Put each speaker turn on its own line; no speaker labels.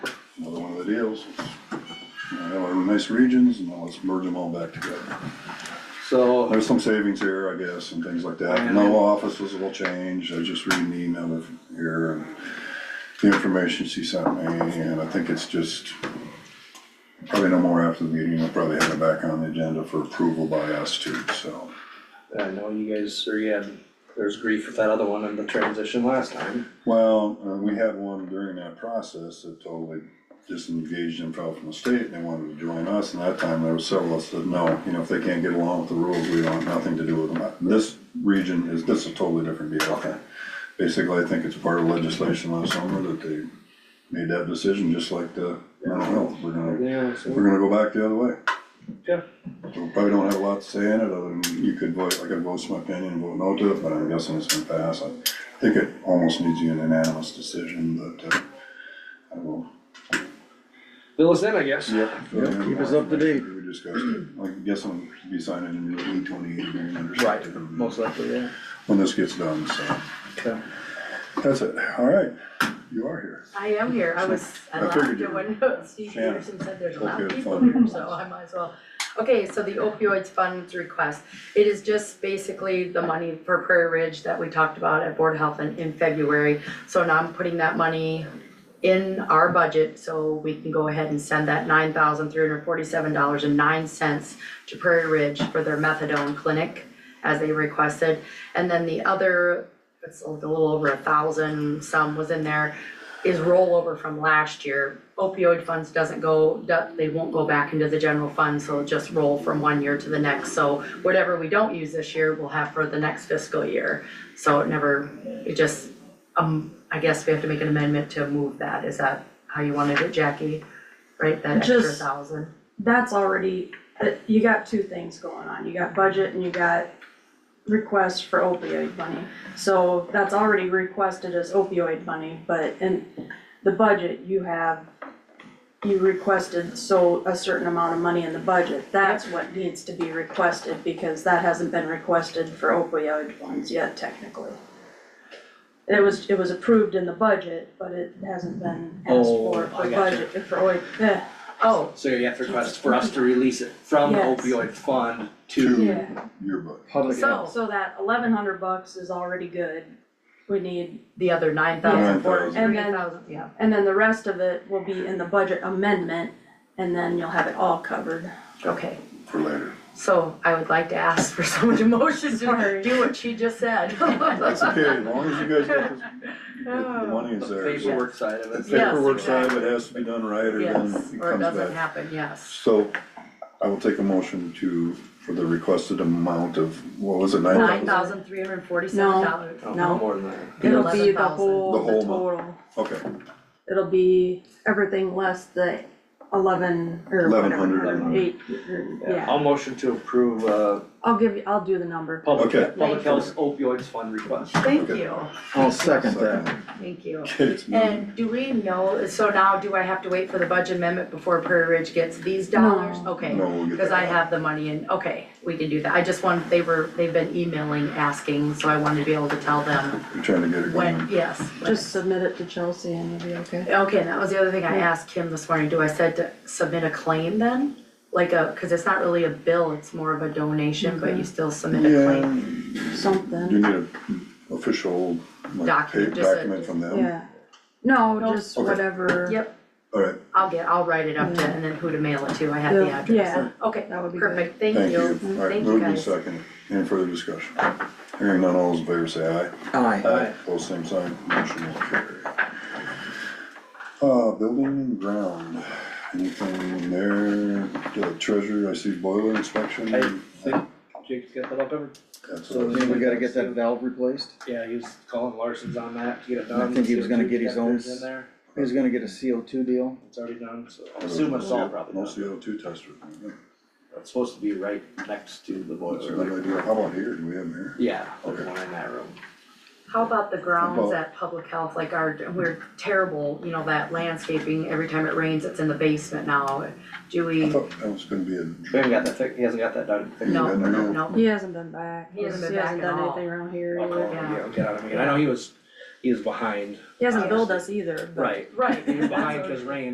what it is. You know, Have our nice regions and now let's merge them all back together.
So,
There's some savings here, I guess, and things like that.
Yeah.
No offices will change. I was just reading the email of here and the information she sent me, and I think it's just probably no more after the meeting. I'll probably have it back on the agenda for approval by us too, so.
I know you guys, or you had, there's grief with that other one in the transition last time.
Well, uh, we had one during that process that totally disengaged and fell from the state and they wanted to join us. And that time there were several that said, no, you know, if they can't get along with the rules, we want nothing to do with them. This region is, this is a totally different deal. Basically, I think it's part of legislation last summer that they made that decision, just like the mental health. We're gonna,
Yeah, so-
we're gonna go back the other way.
Yeah.
So we probably don't have a lot to say in it, other than you could vote, I could vote my opinion and vote no to it, but I'm guessing it's gonna pass. I think it almost needs to be an unanimous decision, but, uh, I will.
Bill us in, I guess.
Yep,
keep us up to date.
We discussed it, I guess I'm be signing a new E twenty-eight agreement or
Right,
something.
most likely, yeah.
When this gets done, so,
Okay.
that's it, all right, you are here.
I am here, I was, I
I
laughed
figured you
at when Steve
Yeah.
Peterson said there's a
Hope
lot
you
of
had
people
fun.
here, so I might as well. Okay, so the opioids funds request, it is just basically the money for Prairie Ridge that we talked about at Board of Health in, in February. So now I'm putting that money in our budget, so we can go ahead and send that nine thousand three hundred forty-seven dollars and nine cents to Prairie Ridge for their methadone clinic, as they requested. And then the other, it's a little over a thousand, some was in there, is rollover from last year. Opioid funds doesn't go, do- they won't go back into the general fund, so it'll just roll from one year to the next. So whatever we don't use this year, we'll have for the next fiscal year. So it never, it just, um, I guess we have to make an amendment to move that. Is that how you wanted it, Jackie? Right, that extra
Just-
thousand?
that's already, uh, you got two things going on, you got budget and you got requests for opioid money. So that's already requested as opioid money, but in the budget, you have, you requested so a certain amount of money in the budget, that's what needs to be requested, because that hasn't been requested for opioid funds yet technically. It was, it was approved in the budget, but it hasn't been asked
Oh,
for,
I
for
gotcha.
budget, for, oi- eh,
Oh,
So you have to request for us to release it from the
Yes.
opioid fund to,
yeah.
Yearbook,
Public
so
So that eleven hundred bucks is already good, we need,
the other nine thousand, four,
$9,000.
three thousand, yeah.
and then the rest of it will be in the budget amendment, and then you'll have it all covered.
Okay,
for later,
so I would like to ask for someone to motion to
Sorry.
do what she just said.
that's okay, as long as you guys get this, the money
the
is there. so-
paperwork side of
The
it.
Yes,
paperwork side of it
exactly.
has to be done right, or then it
Yes,
comes back.
or it doesn't happen, yes.
So I will take a motion to, for the requested amount of, what was it, nine
Nine
thousand?
thousand three hundred forty-seven dollars.
Oh,
No.
more than that.
It'll be the
11,000.
whole,
The
the
whole
total,
Okay,
it'll be everything less the eleven, or whatever,
1100.
eight, or-
Yeah,
yeah,
I'll motion to approve, uh,
I'll give you, I'll do the number.
Oh.
public,
Okay.
public health opioids fund request.
Thank
Okay. Mm-hmm.
you,
I'll second that.
second,
thank you.
okay, it's moved.
And do we know, so now do I have to wait for the budget amendment before Prairie Ridge gets these dollars?
No.
Okay,
No, we'll get
because
that
I
out.
have the money in, okay, we can do that. I just want, they were, they've been emailing, asking, so I wanted to be able to tell them
We're trying to get it
when,
going.
yes. when-
Just submit it to Chelsea and it'll be okay.
Okay, and that was the other thing I asked Kim this morning, do I said to submit a claim then? Like a, cause it's not really a bill, it's more of a donation, but you still submit a claim.
Yeah, you
Something,
need an official, like, pa-
Document, just a-
document from them.
yeah. No,
Nope.
just
Okay.
whatever.
Yep,
Alright,
I'll get, I'll write it up to,
Yeah.
and then who to mail it to, I have the
Yeah.
address.
Yeah.
Okay,
That would be good.
perfect, thank
thank
you,
you. Alright,
thank you
moved and
guys.
second, any further discussion? Hearing none, all those in favor say aye.
Aye.
Aye.
Both same sign, motion will carry. Uh, building and ground, anything in there, The treasure, I see boiler inspection.
I think Jake's got that up ever.
That's
So
what I
then we
think.
gotta get that valve replaced.
Yeah, he was calling Larson's on that to get it
I
done.
think he was gonna
CO2
get his own
detectors In
s-
there,
He's gonna get a CO two deal.
it's already done, so I assume it's all probably
No
done.
CO two tester. yeah.
It's supposed to be right next to the
That's a
boiler,
good
like,
idea. How about here? Do we have them here?
yeah, the
Okay.
one in that room.
How about the grounds
Well-
at Public Health, like our, we're terrible, you know, that landscaping, every time it rains, it's in the basement now. Do we,
I thought that was gonna be a.
We haven't got that, thick- he hasn't got that done. thick-
no,
Yeah, I know.
no,
He hasn't been back.
He hasn't been
He hasn't
back at
done
all.
anything around here
I'll
either.
call him, yeah, get out of me, and I know he was, he was behind,
He hasn't billed us either, but.
right,
right.
he was behind because rain